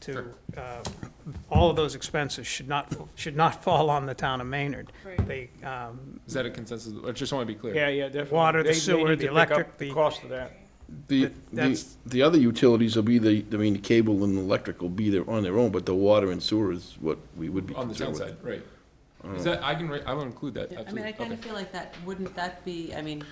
to, uh, all of those expenses should not, should not fall on the town of Maynard. Right. They, um, Is that a consensus? I just want to be clear. Yeah, yeah, definitely. Water, the They- they sewer, need the to pick up electric, the- The cost of that. The, the, that's- the other utilities will be the, I mean, the cable and electric will be there on their own, but the water and sewer is what we would be On the concerned town with. side, right. Is that, I can, write- I will include that, I mean, I absolutely. kind of Okay. feel like that, wouldn't that be, I mean.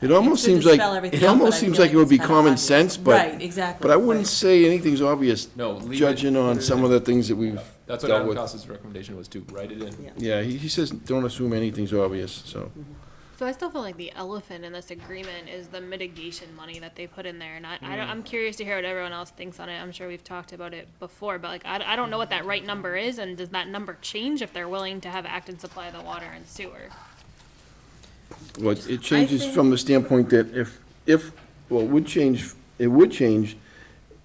It almost could seems like- dispel everything it else, almost but I seems feel like it would it's be kinda common obvious. sense, but- Right, exactly. But I wouldn't right. say anything's obvious, No, leave it. judging on some of the things that we've That's what dealt Adam with. Costa's recommendation was too, write it in. Yeah. Yeah, he, he says, don't assume anything's obvious, so. So I still feel like the elephant in this agreement is the mitigation money that they put in there, and I, I Mm. don't, I'm curious to hear what everyone else thinks on it. I'm sure we've talked about it before, but like, I, d- I don't know what that right number is, and does that number change if they're willing to have Acton supply the water and sewer? Well, it- it changes think- from the standpoint that if, if, well, it would change, it would change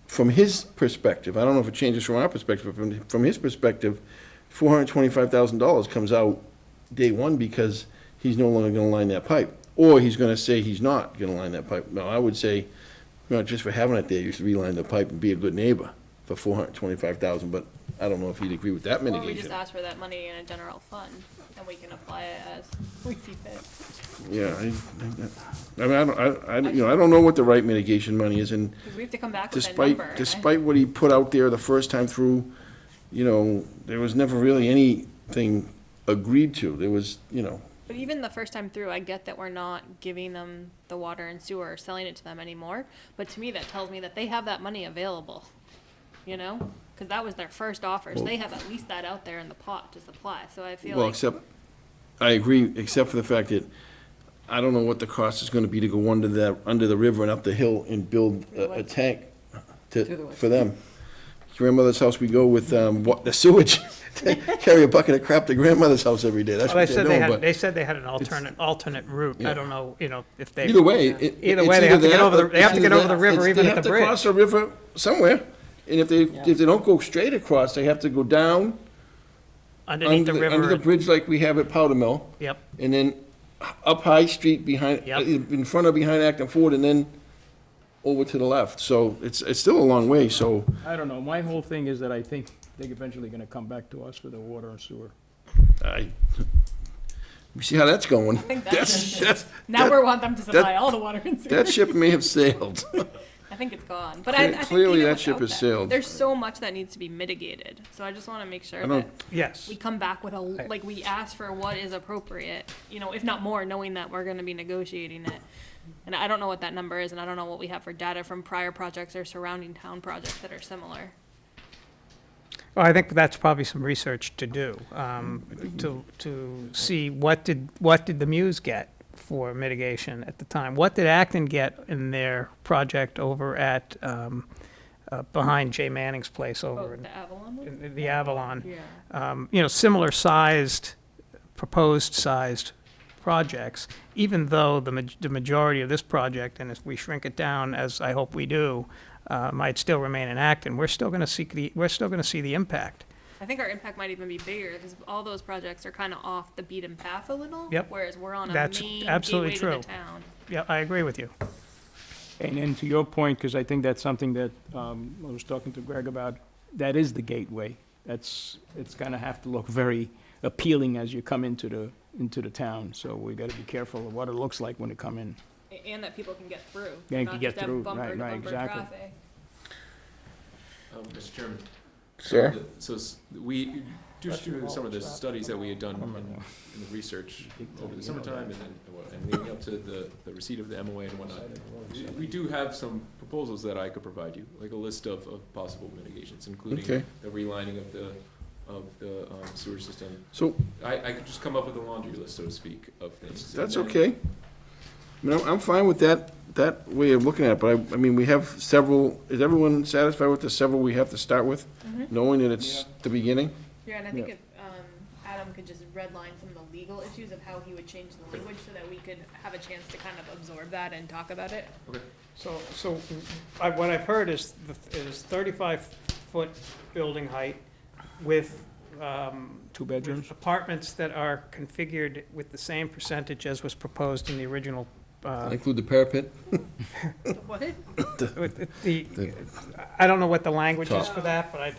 from his perspective. I don't know if it changes from our perspective, but from, from his perspective, four hundred twenty-five thousand dollars comes out day one because he's no longer gonna line that pipe. Or he's gonna say he's not gonna line that pipe. Now, I would say, not just for having it there, you should reline the pipe and be a good neighbor for four hundred twenty-five thousand, but I don't know if he'd agree with that Or we just mitigation. ask for that money in a general fund, and we can apply it as we see fit. Yeah, I, I mean, I don't, I, I, you know, I don't know what the right mitigation money is and Because we have to come back with a number. and despite, I- despite what he put out there the first time through, you know, there was never really anything agreed to. There was, you know, But even the first time through, I get that we're not giving them the water and sewer or selling it to them anymore. But to me, that tells me that they have that money available, you know? Because that was their first offer. So they have at least that out there in the pot to supply. So I feel well, like, except, I agree, except for the fact that I don't know what the cost is gonna be to go under the, under the river and up the hill and build a, a tank To the to, west. for them. Grandmother's house, we go with, um, what, the sewage. Carry a bucket of crap to grandmother's house every day. That's well, they what they're said they doing, had, but- they said they had an alternate, alternate route. I don't know, you know, if they. Either way, it. Either way, it's they have to get that over the- or- they have to it's get either over the that- river it's- even at the They bridge. have to cross a river somewhere, and if they, if they don't go straight across, they have to go down Underneath under, the the- under river. the and- bridge like we have at Powder Mill, Yep, and then up High Street behind, uh, Yep. in front of behind Acton Ford, and then over to the left. So it's, it's still a long way, so, I don't know. My whole thing is that I think they're eventually gonna come back to us for the water and sewer. I, we see how that's going. think That's, that's that's, now we want them to supply all the water and sewer. that ship may have sailed. I think it's gone. But I, I Cle- think clearly even that ship without has sailed. There's so much that needs to be mitigated. So I just want to make sure I that don't- yes. we come back with a, like, we ask for what is appropriate, you know, if not more, knowing that we're gonna be negotiating it. And I don't know what that number is, and I don't know what we have for data from prior projects or surrounding town projects that are similar. Well, I think that's probably some research to do, um, to, to see what did, what did the Muse get for mitigation at the time? What did Acton get in their project over at, um, uh, behind Jay Manning's place Oh, over in- the Avalon one? in the Avalon? Yeah. um, you know, similar sized, proposed sized projects, even though the, maj- the majority of this project, and if we shrink it down, as I hope we do, uh, might still remain in Acton, we're still gonna see the, we're still gonna see the impact. I think our impact might even be bigger, because all those projects are kinda off the beaten path a little. Yep. Whereas we're on a That's main absolutely gateway to the true. town. Yeah, I agree with you. And then to your point, because I think that's something that um, I was talking to Greg about, that is the gateway. That's, it's going to have to look very appealing as you come into the, into the town. So we got to be careful of what it looks like when you come in. A- And that people can get through. They can not get just have through, right, bumper to right, bumper exactly. traffic. Um, Mr. Chairman. Sure. the- So s- we, just through some of the studies that we had done in in the research over the summertime and then, and leading up to the, the receipt of the MOA and whatnot, we do have some proposals that I could provide you, like a list of, of possible mitigations, including Okay. the relining of the, of the um, sewer system. So I, I could just come up with a laundry list, so to speak, of things. That's And then- okay. I mean, I'm- I'm fine with that, that way of looking at it, but I, I mean, we have several, is everyone satisfied with the several we have to start with? Knowing that it's the beginning? Yeah, and I Yeah. think if, um, Adam could just redline some of the legal issues of how he would change the language so that we could have a chance to kind of absorb that and talk about it. So, so I, what I've heard is, the- is thirty-five foot building height with, um, Two with bedrooms? apartments that are configured with the same percentage as was proposed in the original, uh, Include the parapet? What? with the, The- I don't know what the language is for that, but I think